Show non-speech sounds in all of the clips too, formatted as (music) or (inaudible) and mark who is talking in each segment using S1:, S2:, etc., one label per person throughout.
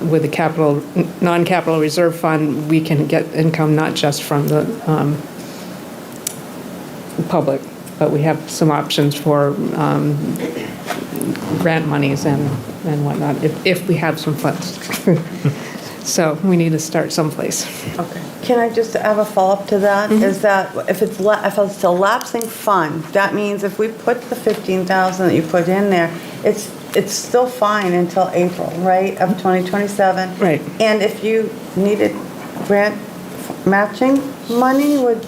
S1: with the capital, non-capital reserve fund, we can get income not just from the um, public, but we have some options for um, grant monies and, and whatnot, if, if we have some funds. (laughs) So we need to start someplace.
S2: Okay.
S3: Can I just have a follow-up to that? Is that if it's, la- if it's a lapsing fund, that means if we put the 15,000 that you put in there, it's, it's still fine until April, right, of 2027?
S1: Right.
S3: And if you needed grant f- matching money, would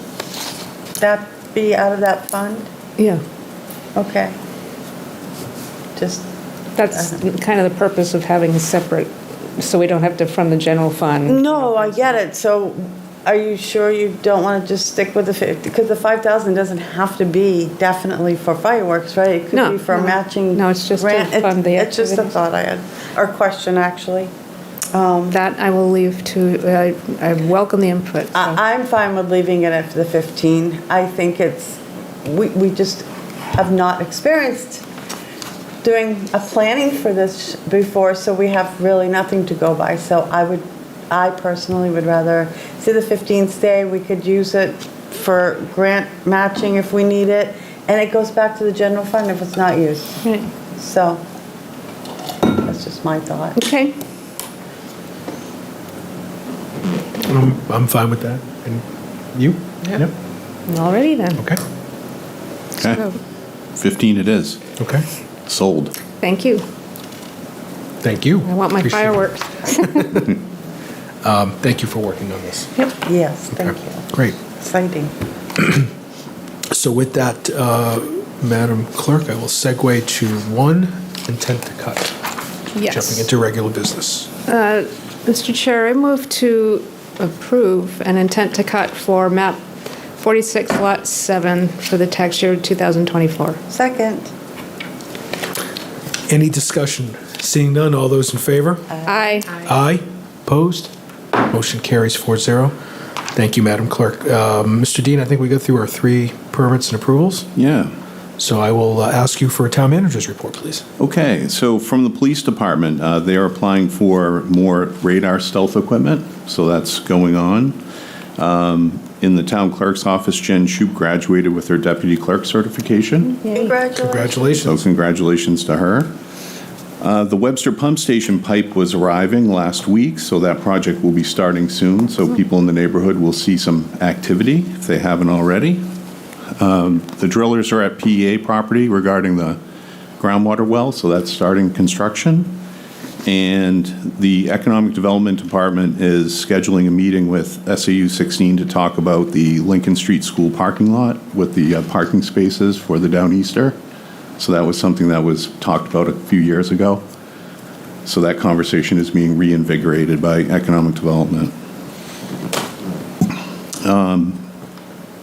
S3: that be out of that fund?
S1: Yeah,
S3: Okay. Just,
S1: that's kind of the purpose of having a separate, so we don't have to from the general fund.
S3: no, I get it, so are you sure you don't want to just stick with the 50? Because the 5,000 doesn't have to be definitely for fireworks, right? It
S1: No,
S3: could be for
S1: no.
S3: matching.
S1: No, it's just to
S3: grant- it's-
S1: fund the
S3: It's just a
S1: activities.
S3: thought I had, or question, actually.
S1: That I will leave to, I, I welcome the input. so.
S3: I- I'm fine with leaving it at the 15. I think it's, we we just have not experienced doing a planning for this before, so we have really nothing to go by. So I would, I personally would rather see the 15 stay. We could use it for grant matching if we need it, and it goes back to the general fund if it's not used.
S1: Right.
S3: So that's just my thought.
S1: Okay,
S4: I'm, I'm fine with that. And you? Yep.
S1: alrighty then.
S4: Okay.
S1: So,
S5: Okay, 15 it is.
S4: Okay.
S5: Sold.
S1: Thank you.
S4: Thank you.
S1: I want my
S4: Appreciate it.
S1: fireworks.
S4: Um, thank you for working on this.
S1: Yep.
S3: Yes, thank
S4: Okay.
S3: you.
S4: Great.
S3: Exciting.
S4: So with that, uh, Madam Clerk, I will segue to one intent to cut.
S1: Yes.
S4: Jumping into regular business.
S1: Mr. Chair, I move to approve an intent to cut for map 46, lot 7 for the tax year 2024.
S3: Second.
S4: Any discussion? Seeing none, all those in favor?
S1: Aye.
S4: Aye. Opposed? Motion carries 4-0. Thank you, Madam Clerk. Uh, Mr. Dean, I think we go through our three permits and approvals.
S5: Yeah.
S4: So I will uh, ask you for a town manager's report, please.
S5: Okay, so from the police department, uh, they are applying for more radar stealth equipment, so that's going on. Um, In the town clerk's office, Jen Shoup graduated with her deputy clerk certification.
S3: Congratulations.
S5: So
S4: Congratulations.
S5: congratulations to her. Uh, The Webster Pump Station pipe was arriving last week, so that project will be starting soon. So people in the neighborhood will see some activity if they haven't already. Um, The drillers are at PEA property regarding the groundwater well, so that's starting construction. And the Economic Development Department is scheduling a meeting with SAU 16 to talk about the Lincoln Street School parking lot with the uh, parking spaces for the Downeaster. So that was something that was talked about a few years ago. So that conversation is being reinvigorated by economic development. Um,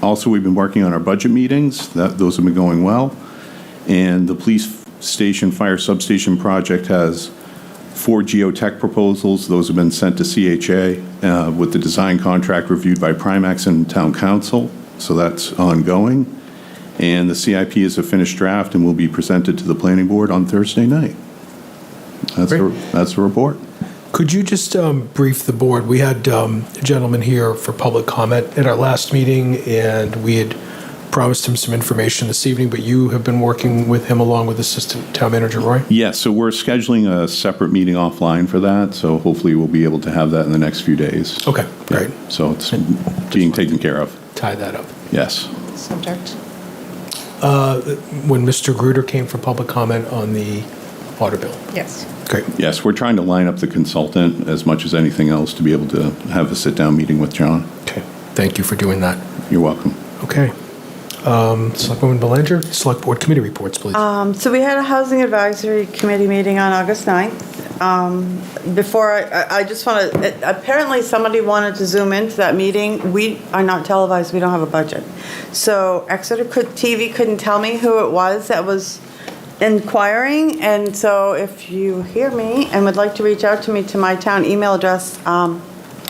S5: Also, we've been working on our budget meetings. That, those have been going well. And the police station fire substation project has four geotech proposals. Those have been sent to CHA uh, with the design contract reviewed by Primax and Town Council. So that's ongoing. And the CIP is a finished draft and will be presented to the planning board on Thursday night. That's, the-
S4: Great.
S5: that's the report.
S4: Could you just um, brief the board? We had um, a gentleman here for public comment at our last meeting, and we had promised him some information this evening, but you have been working with him along with Assistant Town Manager Roy?
S5: Yes, so we're scheduling a separate meeting offline for that, so hopefully we'll be able to have that in the next few days.
S4: Okay, great.
S5: So it's being taken care of,
S4: Tie that up.
S5: yes.
S1: Subject.
S4: When Mr. Gruder came for public comment on the water bill.
S1: Yes.
S4: Great.
S5: Yes, we're trying to line up the consultant as much as anything else to be able to have a sit-down meeting with John.
S4: Okay. Thank you for doing that.
S5: You're welcome.
S4: Okay. Um, Selectwoman Belanger, Select Board Committee reports, please.
S3: Um, So we had a Housing Advisory Committee meeting on August 9th. Um, Before, I- I I just want to, apparently somebody wanted to zoom into that meeting. We are not televised, we don't have a budget. So Exeter could- TV couldn't tell me who it was that was inquiring, and so if you hear me and would like to reach out to me to my town email address, um,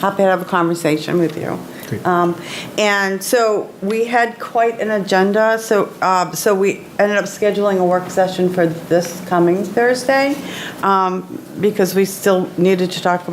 S3: happy to have a conversation with you.
S4: Great.
S3: Um, And so we had quite an agenda, so, uh, so we ended up scheduling a work session for this coming Thursday um, because we still needed to talk about.